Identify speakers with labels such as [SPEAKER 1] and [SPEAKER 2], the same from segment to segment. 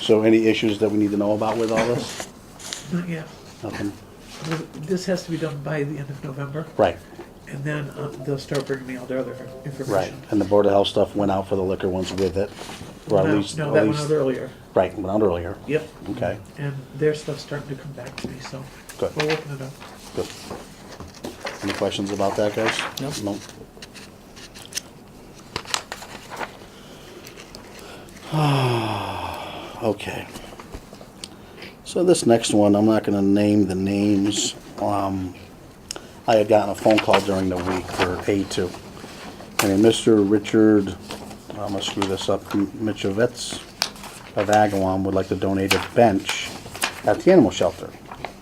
[SPEAKER 1] So any issues that we need to know about with all this?
[SPEAKER 2] Not yet.
[SPEAKER 1] Nothing?
[SPEAKER 2] This has to be done by the end of November,
[SPEAKER 1] Right,
[SPEAKER 2] and then uh, they'll start bringing me all the other
[SPEAKER 1] right.
[SPEAKER 2] information.
[SPEAKER 1] And the Board of Health stuff went out for the liquor ones with it? or at
[SPEAKER 2] No,
[SPEAKER 1] least-
[SPEAKER 2] No,
[SPEAKER 1] at
[SPEAKER 2] that went
[SPEAKER 1] least-
[SPEAKER 2] out earlier.
[SPEAKER 1] Right, went out earlier.
[SPEAKER 2] Yep.
[SPEAKER 1] Okay,
[SPEAKER 2] And their stuff's starting to come back to me, so
[SPEAKER 1] Good.
[SPEAKER 2] we're working it out.
[SPEAKER 1] good. Any questions about that, guys?
[SPEAKER 3] No.
[SPEAKER 1] No. Okay. So this next one, I'm not gonna name the names. Um, I had gotten a phone call during the week for A2. And a Mr. Richard, I'm gonna screw this up, Michovets of Agawam would like to donate a bench at the animal shelter.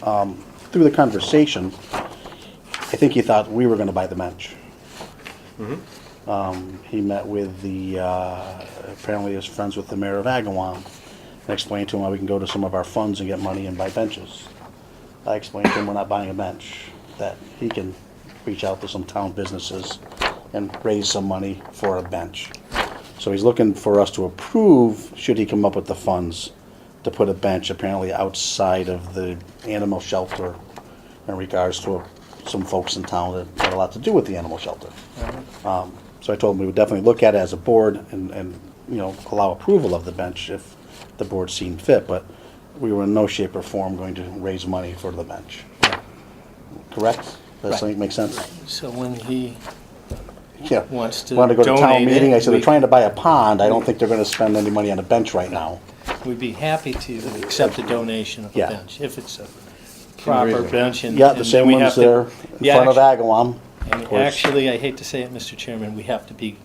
[SPEAKER 1] Um, Through the conversation, I think he thought we were gonna buy the bench. Um, He met with the, uh, apparently is friends with the mayor of Agawam, and explained to him how we can go to some of our funds and get money and buy benches. I explained to him we're not buying a bench, that he can reach out to some town businesses and raise some money for a bench. So he's looking for us to approve, should he come up with the funds, to put a bench apparently outside of the animal shelter in regards to some folks in town that had a lot to do with the animal shelter. Um, So I told him we would definitely look at it as a board and, and, you know, allow approval of the bench if the board seemed fit, but we were in no shape or form going to raise money for the bench. Correct? Does that
[SPEAKER 3] Right.
[SPEAKER 1] make sense?
[SPEAKER 3] So when he,
[SPEAKER 1] Yeah.
[SPEAKER 3] Wants to
[SPEAKER 1] Wanted to go to town
[SPEAKER 3] donate it,
[SPEAKER 1] meeting, I said, they're
[SPEAKER 3] we-
[SPEAKER 1] trying to buy a pond, I don't think they're gonna spend any money on a bench right now.
[SPEAKER 3] we'd be happy to accept a donation of a
[SPEAKER 1] Yeah.
[SPEAKER 3] bench, if it's a proper bench and.
[SPEAKER 1] Yeah, the
[SPEAKER 3] and
[SPEAKER 1] same
[SPEAKER 3] we have
[SPEAKER 1] ones
[SPEAKER 3] to-
[SPEAKER 1] there in
[SPEAKER 3] Yeah,
[SPEAKER 1] front of
[SPEAKER 3] actu-
[SPEAKER 1] Agawam.
[SPEAKER 3] and
[SPEAKER 1] of course.
[SPEAKER 3] Actually, I hate to say it, Mr. Chairman, we have to be,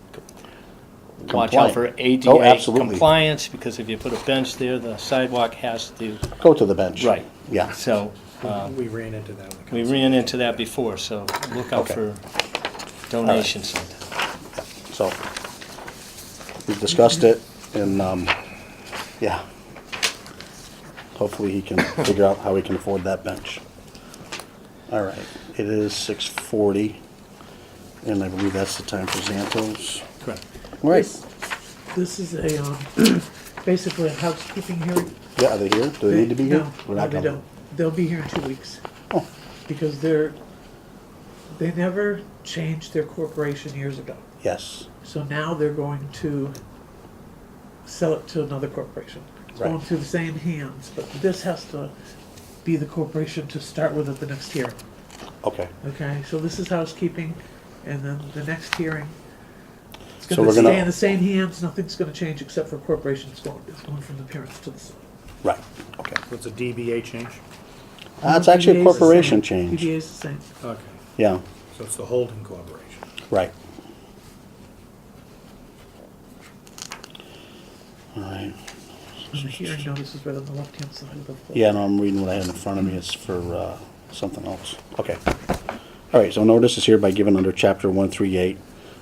[SPEAKER 3] watch
[SPEAKER 1] Compliant.
[SPEAKER 3] out for
[SPEAKER 1] Oh,
[SPEAKER 3] ADA
[SPEAKER 1] absolutely.
[SPEAKER 3] compliance, because if you put a bench there, the sidewalk has to,
[SPEAKER 1] Go to the bench.
[SPEAKER 3] right.
[SPEAKER 1] Yeah,
[SPEAKER 3] So, uh,
[SPEAKER 4] We ran into that one.
[SPEAKER 3] we ran into that before, so look out
[SPEAKER 1] Okay.
[SPEAKER 3] for donations sometime.
[SPEAKER 1] so, we've discussed it, and, um, yeah. Hopefully he can figure out how he can afford that bench. All right, it is six forty, and I believe that's the time for Zantos.
[SPEAKER 3] Correct.
[SPEAKER 1] All Right,
[SPEAKER 2] This- This is a, um, basically a housekeeping hearing.
[SPEAKER 1] yeah, are they here? Do they need to be here?
[SPEAKER 2] No,
[SPEAKER 1] We're
[SPEAKER 2] no,
[SPEAKER 1] not
[SPEAKER 2] they
[SPEAKER 1] coming.
[SPEAKER 2] don't. They'll be here in two weeks.
[SPEAKER 1] Oh.
[SPEAKER 2] Because they're, they never changed their corporation years ago.
[SPEAKER 1] Yes,
[SPEAKER 2] So now they're going to sell it to another corporation. It's going
[SPEAKER 1] Right.
[SPEAKER 2] through the same hands, but this has to be the corporation to start with at the next hearing.
[SPEAKER 1] okay.
[SPEAKER 2] Okay, so this is housekeeping, and then the next hearing. It's
[SPEAKER 1] So we're
[SPEAKER 2] gonna
[SPEAKER 1] gonna-
[SPEAKER 2] stay in the same hands, nothing's gonna change except for corporations going, it's going from the parents to the son.
[SPEAKER 1] Right, okay.
[SPEAKER 4] What's a DBA change?
[SPEAKER 1] That's actually a
[SPEAKER 2] PBA is the
[SPEAKER 1] corporation
[SPEAKER 2] same. PBA
[SPEAKER 1] change.
[SPEAKER 2] is the same.
[SPEAKER 4] Okay,
[SPEAKER 1] Yeah,
[SPEAKER 4] so it's the holding corporation.
[SPEAKER 1] right. All right.
[SPEAKER 2] And the hearing notice is right on the left-hand side of the.
[SPEAKER 1] Yeah, no, I'm reading what I had in front of me. It's for uh, something else. Okay. All right, so notice is hereby given under Chapter 138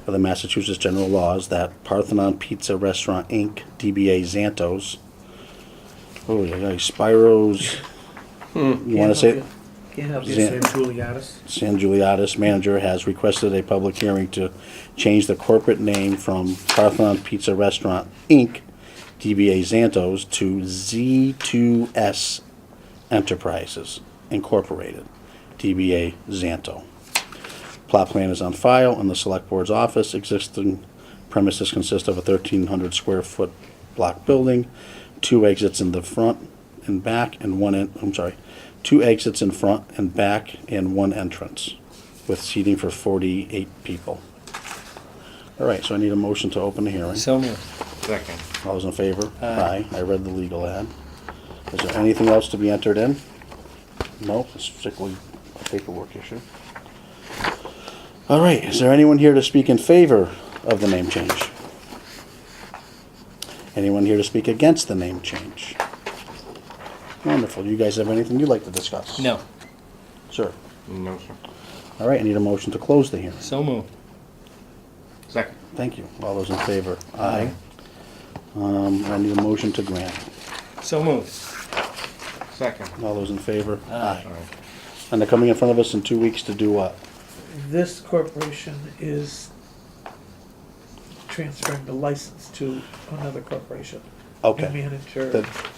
[SPEAKER 1] of the Massachusetts General Laws that Parthenon Pizza Restaurant, Inc., DBA Zantos, oh, yeah, yeah, Spiros,
[SPEAKER 2] Hmm.
[SPEAKER 1] you want to say,
[SPEAKER 2] Can't help
[SPEAKER 1] Zan-
[SPEAKER 2] you.
[SPEAKER 4] San Juliatis?
[SPEAKER 1] San Giuliottis manager has requested a public hearing to change the corporate name from Parthenon Pizza Restaurant, Inc., DBA Zantos, to Z2S Enterprises Incorporated, DBA Zanto. Plot plan is on file in the Select Board's office. Existing premises consist of a 1,300 square foot block building, two exits in the front and back, and one, en- I'm sorry, two exits in front and back, and one entrance, with seating for 48 people. All right, so I need a motion to open the hearing.
[SPEAKER 3] So moved.
[SPEAKER 4] Second.
[SPEAKER 1] All those in favor?
[SPEAKER 3] Aye.
[SPEAKER 1] I read the legal ad. Is there anything else to be entered in? No, it's strictly a paperwork issue. All right, is there anyone here to speak in favor of the name change? Anyone here to speak against the name change? Wonderful. You guys have anything you'd like to discuss?
[SPEAKER 3] No,
[SPEAKER 1] Sir?
[SPEAKER 5] No, sir.
[SPEAKER 1] All right, I need a motion to close the hearing.
[SPEAKER 3] so moved.
[SPEAKER 5] Second.
[SPEAKER 1] Thank you. All those in favor? Aye. Um, I need a motion to grant.
[SPEAKER 3] So moved.
[SPEAKER 5] Second.
[SPEAKER 1] All those in favor? Aye.
[SPEAKER 5] All right.
[SPEAKER 1] And they're coming in front of us in two weeks to do what?
[SPEAKER 2] This corporation is transferring the license to another corporation.
[SPEAKER 1] Okay.
[SPEAKER 2] The manager.
[SPEAKER 1] The